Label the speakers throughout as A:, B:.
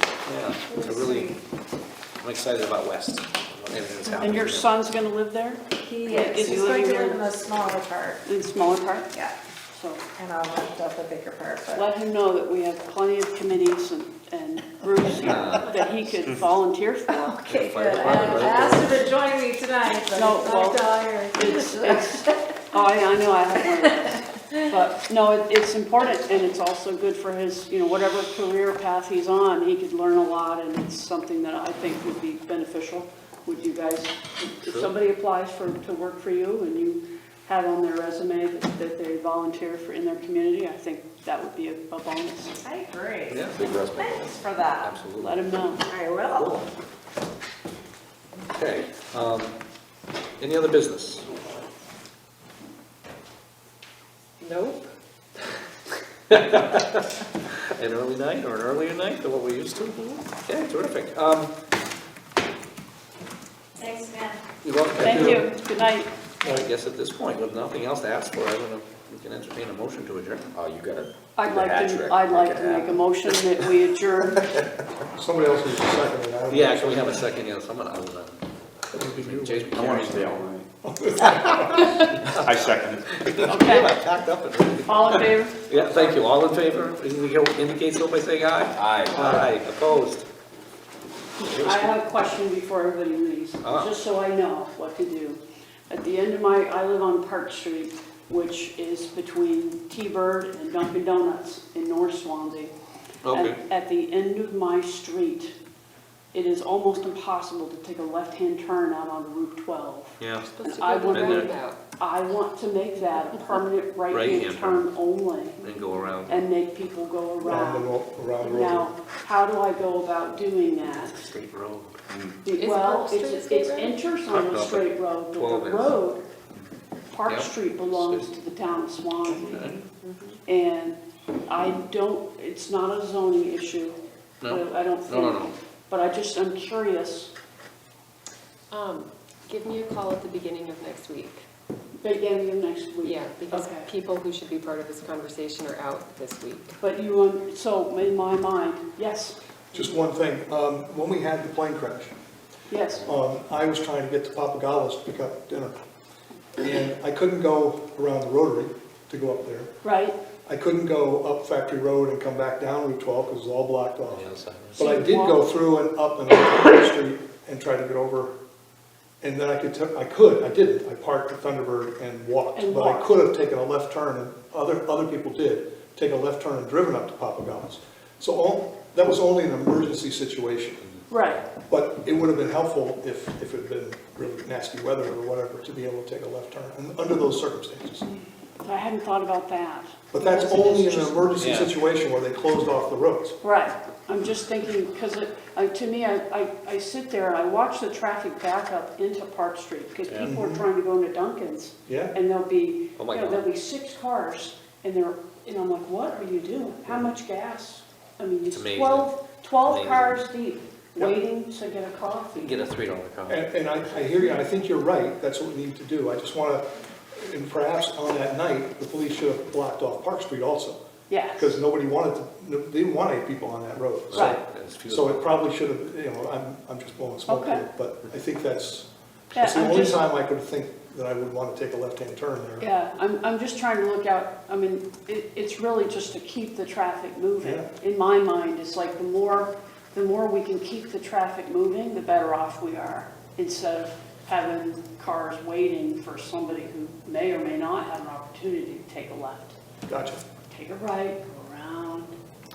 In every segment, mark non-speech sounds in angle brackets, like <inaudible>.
A: yeah, I really, I'm excited about West. Everything that's happening
B: And your
A: here.
B: son's gonna live there
C: He
B: Is
C: is,
B: he
C: he's going to
B: living
C: live in
B: there?
C: a smaller part,
B: in smaller part,
C: yeah,
B: so
C: and I'll lift up a bigger part, but
B: let him know that we have plenty of committees and, and groups that he could volunteer for.
C: Okay,
A: Fire
C: good. I
A: department, right
C: asked him to join me tonight, but
B: No,
C: he's
B: well,
C: not tired. <laughs>
B: It's, it's, oh, I, I know I have one of those. But, no, it- it's important, and it's also good for his, you know, whatever career path he's on, he could learn a lot, and it's something that I think would be beneficial. Would you guys, if somebody applies for, to work for you, and you have on their resume that that they volunteer for, in their community, I think that would be a a bonus.
C: I agree.
A: Yeah,
D: Big respect.
C: Thanks for that.
A: absolutely.
B: Let him know.
C: I will.
A: Okay, um, any other business?
C: Nope.
A: <laughs> An early night or an earlier night than what we're used to? Okay, terrific. Um,
C: Thanks, man.
A: you're welcome.
B: Thank you, good night.
A: I guess at this point, with nothing else to ask for, I don't know, if we can entertain a motion to adjourn.
D: Oh, you got a.
B: I'd
D: hat
B: like
D: trick.
B: to, I'd like
D: Make it
B: to make a
D: happen.
B: motion that we <laughs> adjourn.
E: Somebody else needs a second, and I don't.
A: Yeah, can we have a second, yes, I'm gonna, I was, uh, Jason
D: I want to
A: Carroll.
D: stay all night.
F: <laughs>
D: I second it.
B: Okay,
A: Packed up and ready.
B: all in favor?
A: Yeah, thank you, all in favor, indicate so by saying aye.
D: Aye.
A: Aye, opposed.
B: I have a question before everybody leaves,
A: Ah.
B: just so I know what to do. At the end of my, I live on Park Street, which is between T-Bird and Dunkin' Donuts in North Swansea.
A: Okay.
B: At- At the end of my street, it is almost impossible to take a left-hand turn out on Route 12.
A: Yeah,
B: And I want,
A: Been there.
B: I want to make that a permanent
A: <laughs>
B: right-hand
A: Right-hand turn.
B: turn only
A: and go around.
B: and make people go
E: Around
B: around.
E: the, ro- around the road.
B: Now, how do I go about doing that?
A: Straight road.
G: Is
B: Well,
G: Park Street a
B: it's,
G: skate
B: it
G: road?
B: enters on
A: Park
B: a
A: up
B: straight road, but
A: 12
B: the
A: is.
B: road, Park
A: Yep.
B: Street belongs to the town of Swansea.
G: Mm-hmm.
B: And I don't, it's not a zoning issue, I
A: No?
B: I don't think.
A: No, no, no.
B: But I just, I'm curious,
G: Um, give me a call at the beginning of next week.
B: beginning of next week.
G: Yeah, because
B: Okay.
G: people who should be part of this conversation are out this week.
B: But you, um, so in my mind, yes,
E: Just one thing, um, when we had the plane crash,
B: yes,
E: um, I was trying to get to Papagallis to pick up dinner. And I couldn't go around the rotary to go up there.
B: right?
E: I couldn't go up Factory Road and come back down Route 12 because it was all blocked
A: On
E: off.
A: the other side.
E: But I did go through and up and up the street and try to get over. And then I could, ta- I could, I didn't, I parked at Thunderbird and walked.
B: And
E: But I
B: walked.
E: could have taken a left turn, and other, other people did, take a left turn and driven up to Papagallis. So all, that was only an emergency situation.
B: Right,
E: But it would have been helpful if, if it had been really nasty weather or whatever, to be able to take a left turn, and under those circumstances.
B: I hadn't thought about that.
E: But that's
B: Because it is
E: only in an
B: just-
E: emergency
A: Yeah.
E: situation where they closed off the roads.
B: Right, I'm just thinking, because it, I- to me, I, I I sit there and I watch the traffic back up into Park Street, because
A: Yeah.
B: people are trying to go into Dunkin's,
E: Yeah,
B: and there'll be,
A: Oh
B: you
A: my
B: know,
A: God.
B: there'll be six cars, and they're, and I'm like, what are you doing? How much gas? I mean, it's
A: It's amazing.
B: 12, 12
A: Amazing.
B: cars deep,
E: Yep.
B: waiting to get a
A: You can
B: coffee.
A: get a three dollar coffee.
E: and, and I, I hear you, and I think you're right, that's what we need to do. I just want to, and perhaps on that night, the police should have blocked off Park Street also,
B: Yes,
E: because nobody wanted to, they didn't want any people on that road. So-
B: Right.
A: It's few-
E: So it probably should have, you know, I'm, I'm just blowing smoke
B: Okay.
E: here, but I think that's,
B: yeah,
E: that's the
B: I'm
E: only
B: just,
E: time I could think that I would want to take a left-hand turn there.
B: yeah, I'm, I'm just trying to look out, I mean, it, it's really just to keep the traffic moving.
E: Yeah.
B: in my mind, it's like the more, the more we can keep the traffic moving, the better off we are. Instead of having cars waiting for somebody who may or may not have an opportunity to take a left,
E: Gotcha.
B: take a right, go around.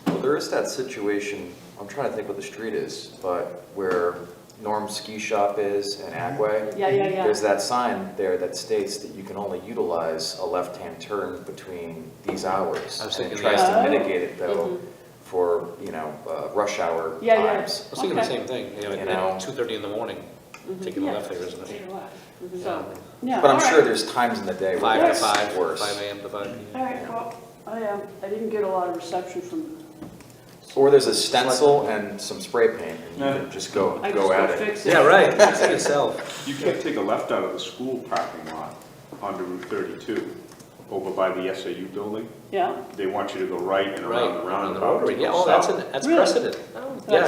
H: Well, there is that situation, I'm trying to think what the street is, but where Norm's Ski Shop is in
A: Mm-hmm.
H: Agway.
B: Yeah, yeah, yeah.
H: There's that sign there that states that you can only utilize a left-hand turn between these hours.
A: I was
H: And it
A: thinking
H: tries
B: that.
H: to
B: Oh.
H: mitigate it though, for, you know, uh, rush hour
B: Yeah, yeah.
H: times.
A: I was thinking the
B: Okay.
A: same thing, you know,
H: You know.
A: at two thirty in the morning, taking a
B: Mm-hmm. Yeah,
A: left there, isn't
B: Take
A: it?
B: a left.
A: Yeah.
B: So, yeah.
H: But I'm
B: all
H: sure
B: right.
H: there's times in the day where
A: Five to
H: that's
A: five,
H: worse.
A: five AM to five
B: All
A: PM.
B: right, well, I, um, I didn't get a lot of reception from,
H: Or there's a stencil and some spray paint and you
D: Yeah.
H: can just go,
B: I just
H: go
B: go
H: at it.
B: fix it.
A: Yeah, right, It's yourself.
F: You can't take a left out of the school parking lot onto Route 32, over by the SAU building.
B: Yeah.
F: They want you to go right and
A: Right,
F: around the
A: around the
F: roundabout. to
A: rotary, yeah,
F: go
A: oh, that's,
F: south.
A: an- that's
B: Really?
A: precedent.
G: Oh.
A: Yeah,